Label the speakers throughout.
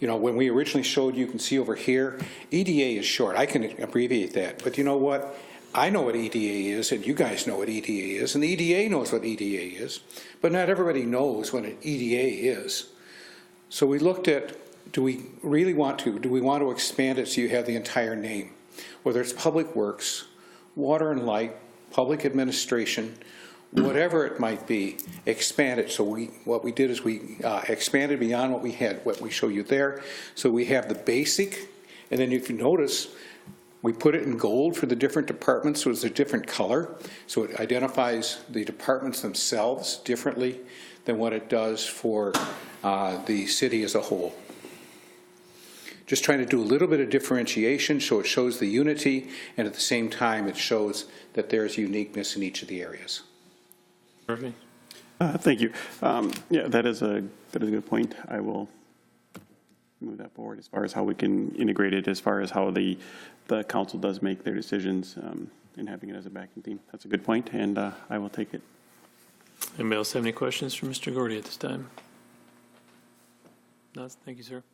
Speaker 1: you know, when we originally showed, you can see over here, EDA is short. I can abbreviate that, but you know what? I know what EDA is, and you guys know what EDA is, and the EDA knows what EDA is, but not everybody knows what an EDA is. So we looked at, do we really want to, do we want to expand it so you have the entire name? Whether it's Public Works, Water and Light, Public Administration, whatever it might be, expand it. So we, what we did is we uh, expanded beyond what we had, what we show you there. So we have the basic, and then if you notice, we put it in gold for the different departments, so it's a different color. So it identifies the departments themselves differently than what it does for uh, the city as a whole. Just trying to do a little bit of differentiation, so it shows the unity, and at the same time, it shows that there's uniqueness in each of the areas.
Speaker 2: Murphy?
Speaker 3: Uh, Thank you. Um, Yeah, that is a, that is a good point. I will move that forward as far as how we can integrate it, as far as how the, the council does make their decisions um, and having it as a backing team. That's a good point, and uh, I will take it.
Speaker 2: Anybody else have any questions for Mr. Gordy at this time? No, thank you, sir. If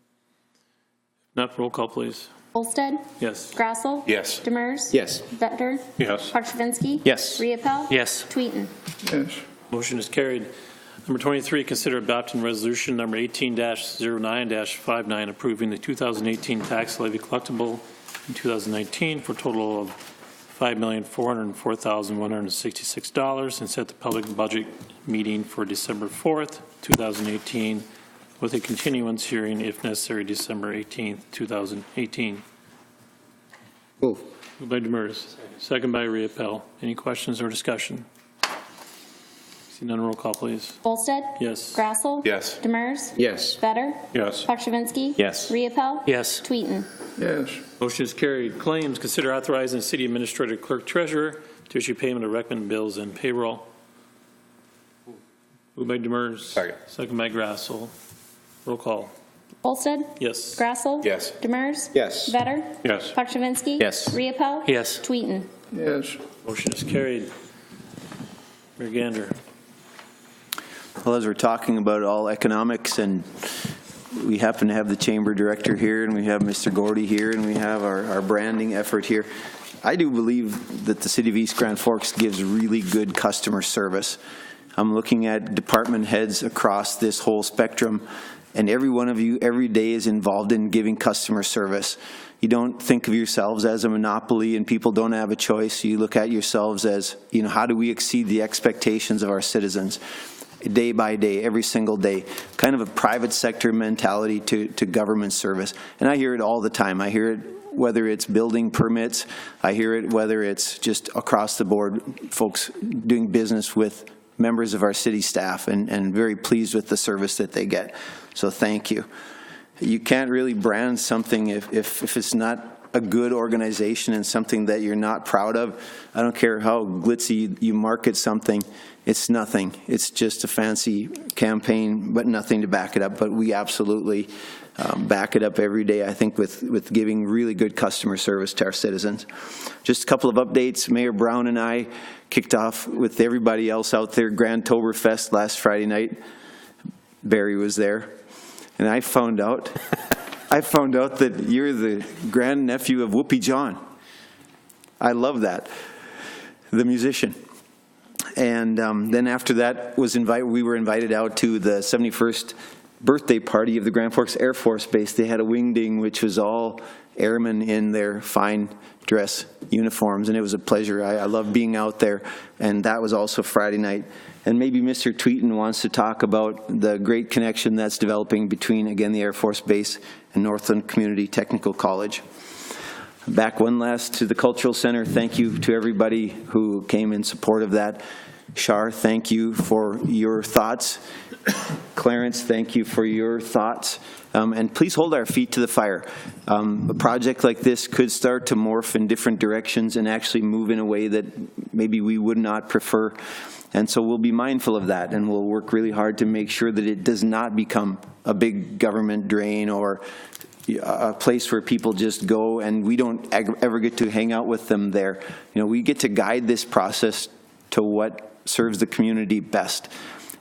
Speaker 2: Not roll call, please.
Speaker 4: Olsted.
Speaker 2: Yes.
Speaker 4: Grassel.
Speaker 5: Yes.
Speaker 4: Demers.
Speaker 6: Yes.
Speaker 4: Vetter.
Speaker 5: Yes.
Speaker 4: Parchivinsky.
Speaker 6: Yes.
Speaker 4: Riepel.
Speaker 2: Yes.
Speaker 4: Tweeten.
Speaker 2: Motion is carried. Number 23, consider adopting resolution number 18-09-59, approving the 2018 tax levy collectible in 2019 for a total of $5,404,166 and set the public budget meeting for December 4th, 2018, with a continuance hearing if necessary December 18th, 2018.
Speaker 6: Move.
Speaker 2: Moved by Demers, second by Riepel. Any questions or discussion? See none, roll call, please.
Speaker 4: Olsted.
Speaker 2: Yes.
Speaker 4: Grassel.
Speaker 5: Yes.
Speaker 4: Demers.
Speaker 6: Yes.
Speaker 4: Vetter.
Speaker 5: Yes.
Speaker 4: Parchivinsky.
Speaker 6: Yes.
Speaker 4: Riepel.
Speaker 2: Yes.
Speaker 4: Tweeten.
Speaker 2: Motion is carried. Claims, consider authorizing the city administrator clerk treasurer to issue payment of recommended bills and payroll. Moved by Demers.
Speaker 5: Second.
Speaker 2: Second by Grassel. Roll call.
Speaker 4: Olsted.
Speaker 2: Yes.
Speaker 4: Grassel.
Speaker 5: Yes.
Speaker 4: Demers.
Speaker 6: Yes.
Speaker 4: Vetter.
Speaker 5: Yes.
Speaker 4: Parchivinsky.
Speaker 6: Yes.
Speaker 4: Riepel.
Speaker 2: Yes.
Speaker 4: Tweeten.
Speaker 2: Motion is carried. Mayor Gander.
Speaker 7: Well, as we're talking about all economics, and we happen to have the chamber director here, and we have Mr. Gordy here, and we have our, our branding effort here, I do believe that the city of East Grand Forks gives really good customer service. I'm looking at department heads across this whole spectrum, and every one of you every day is involved in giving customer service. You don't think of yourselves as a monopoly and people don't have a choice. You look at yourselves as, you know, how do we exceed the expectations of our citizens? day by day, every single day, kind of a private sector mentality to, to government service. And I hear it all the time. I hear it whether it's building permits, I hear it whether it's just across the board, folks doing business with members of our city staff and, and very pleased with the service that they get. So thank you. You can't really brand something if, if, if it's not a good organization and something that you're not proud of. I don't care how glitzy you market something, it's nothing. It's just a fancy campaign, but nothing to back it up. But we absolutely um, back it up every day, I think, with, with giving really good customer service to our citizens. Just a couple of updates. Mayor Brown and I kicked off with everybody else out there, Grand Toberfest last Friday night. Barry was there, and I found out, I found out that you're the grandnephew of Whoopi John. I love that, the musician. And um, then after that was invited, we were invited out to the 71st birthday party of the Grand Forks Air Force Base. They had a wingding, which was all airmen in their fine dress uniforms, and it was a pleasure. I, I love being out there, and that was also Friday night. And maybe Mr. Tweeten wants to talk about the great connection that's developing between, again, the Air Force Base and Northland Community Technical College. Back one last to the Cultural Center, thank you to everybody who came in support of that. Shar, thank you for your thoughts. Clarence, thank you for your thoughts. Um, And please hold our feet to the fire. Um, A project like this could start to morph in different directions and actually move in a way that maybe we would not prefer. And so we'll be mindful of that, and we'll work really hard to make sure that it does not become a big government drain or a a place where people just go and we don't ag- ever get to hang out with them there. You know, we get to guide this process to what serves the community best.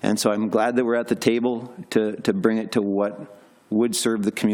Speaker 7: And so I'm glad that we're at the table to, to bring it to what would serve the community.